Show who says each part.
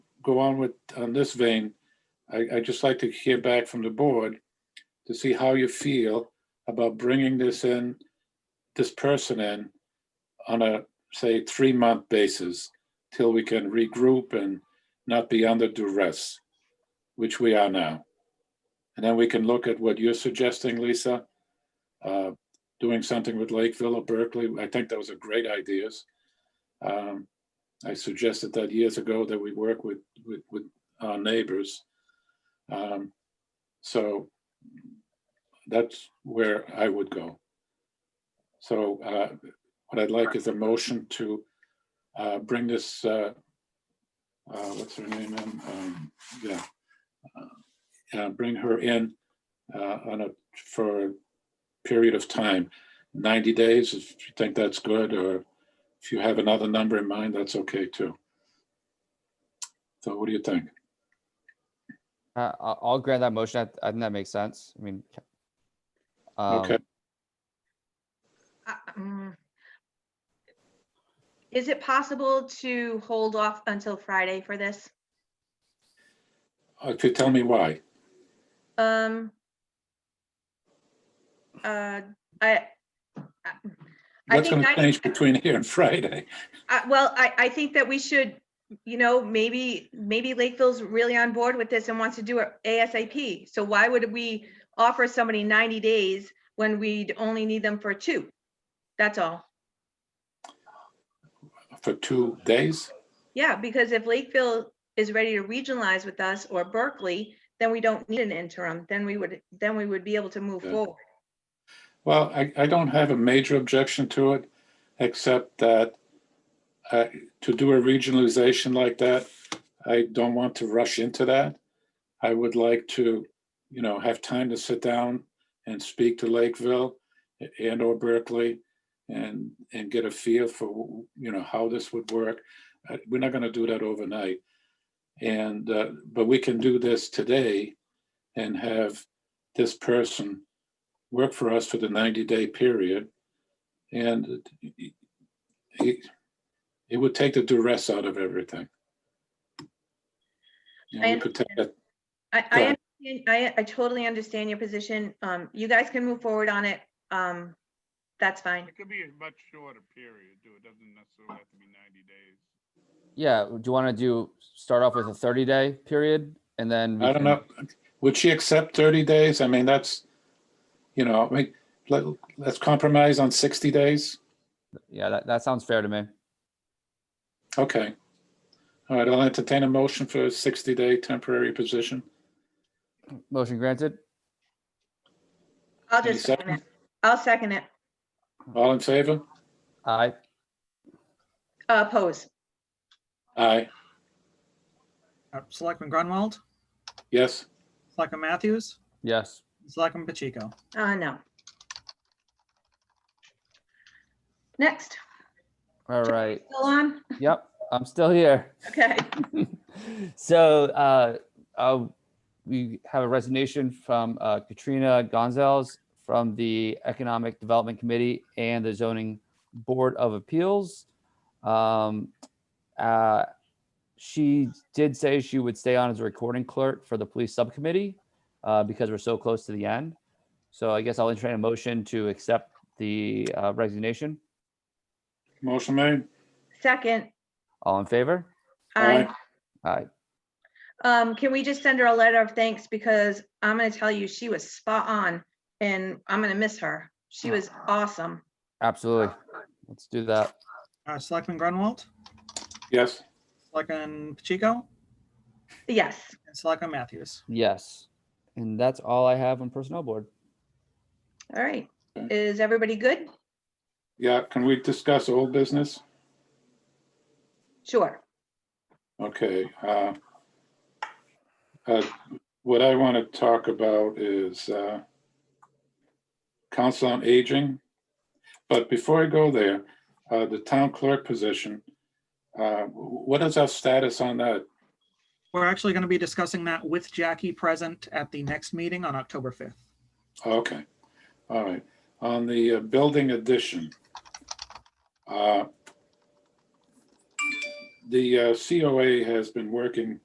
Speaker 1: go on with, on this vein, I, I'd just like to hear back from the board to see how you feel about bringing this in, this person in on a, say, three-month basis till we can regroup and not be under duress, which we are now. And then we can look at what you're suggesting, Lisa, uh, doing something with Lakeville or Berkeley. I think those are great ideas. Um, I suggested that years ago that we work with, with, with our neighbors. Um, So that's where I would go. So uh, what I'd like is a motion to uh, bring this, uh, uh, what's her name? in? Um, Yeah. Uh, Bring her in uh, on a, for a period of time, 90 days, if you think that's good, or if you have another number in mind, that's okay too. So what do you think?
Speaker 2: Uh, I'll, I'll grant that motion. I, th- I think that makes sense. I mean, ca-
Speaker 1: Okay,
Speaker 2: um,
Speaker 3: Uh, mm. Is it possible to hold off until Friday for this?
Speaker 1: if you tell me why.
Speaker 3: Um. uh, I. I- I
Speaker 1: What's
Speaker 3: think,
Speaker 1: going to
Speaker 3: I,
Speaker 1: change between here and Friday?
Speaker 3: I- well, I, I think that we should, you know, maybe, maybe Lakeville's really on board with this and wants to do it ASAP. So why would we offer somebody ninety days when we'd only need them for two? That's all.
Speaker 1: For two days?
Speaker 3: Yeah, because if Lakeville is ready to regionalize with us or Berkeley, then we don't need an interim, then we would, then we would be able to move
Speaker 1: Yeah.
Speaker 3: forward.
Speaker 1: Well, I, I don't have a major objection to it, except that uh, to do a regionalization like that, I don't want to rush into that. I would like to, you know, have time to sit down and speak to Lakeville and or Berkeley and, and get a feel for, you know, how this would work. Uh, We're not going to do that overnight. And, uh, but we can do this today and have this person work for us for the 90-day period. And it- it, it would take the duress out of everything. You know,
Speaker 3: I
Speaker 1: we could take that-
Speaker 3: I, I,
Speaker 1: Right.
Speaker 3: understand- I, I totally understand your position. Um, you guys can move forward on it. Um, that's fine.
Speaker 4: It could be a much shorter period, too. It doesn't necessarily have to be ninety days.
Speaker 2: yeah, do you want to do, start off with a thirty day period and then? we
Speaker 1: I don't
Speaker 2: can-
Speaker 1: know, would she accept 30 days? I mean, that's, you know, I mean, let, let's compromise on 60 days?
Speaker 2: Yeah, that, that sounds fair to me.
Speaker 1: Okay. All right, I'll entertain a motion for a 60-day temporary position.
Speaker 2: Motion granted.
Speaker 3: I'll
Speaker 1: Any
Speaker 3: just second it.
Speaker 1: second?
Speaker 3: I'll second it.
Speaker 1: All in favor?
Speaker 2: Aye.
Speaker 3: Uh, pose.
Speaker 1: Aye,
Speaker 5: Uh, Selectman Grunwald,
Speaker 1: yes.
Speaker 5: Selectman Matthews,
Speaker 2: Yes.
Speaker 5: Selectman Pacheco.
Speaker 3: Uh, no. Next,
Speaker 2: All right.
Speaker 3: still on?
Speaker 2: Yep. I'm still here.
Speaker 3: Okay.
Speaker 2: So, uh, uh, we have a resignation from, uh, Katrina Gonzalez from the Economic Development Committee and the Zoning Board of Appeals. Um, uh, she did say she would stay on as a recording clerk for the police subcommittee, uh, because we're so close to the end. So I guess I'll entertain a motion to accept the, uh, resignation.
Speaker 1: Motion made?
Speaker 3: Second,
Speaker 2: All in favor?
Speaker 3: I.
Speaker 2: Aye.
Speaker 3: Um, can we just send her a letter of thanks because I'm gonna tell you, she was spot on and I'm gonna miss her. She was awesome.
Speaker 2: Absolutely. Let's do that.
Speaker 5: Uh, Selectman Grunwald,
Speaker 1: Yes,
Speaker 5: Selectman Pacheco,
Speaker 3: Yes,
Speaker 5: and Selectman Matthews.
Speaker 2: Yes. And that's all I have on personnel board.
Speaker 3: all right.
Speaker 1: Okay.
Speaker 3: Is everybody good?
Speaker 1: yeah, can we discuss old business?
Speaker 3: Sure.
Speaker 1: Okay. uh, uh, What I want to talk about is uh, Council on Aging. But before I go there, uh, the town clerk position, uh, what is our status on that?
Speaker 5: We're actually going to be discussing that with Jackie present at the next meeting on October 5th.
Speaker 1: Okay, all right. On the uh, building addition, uh, the uh, COA has been working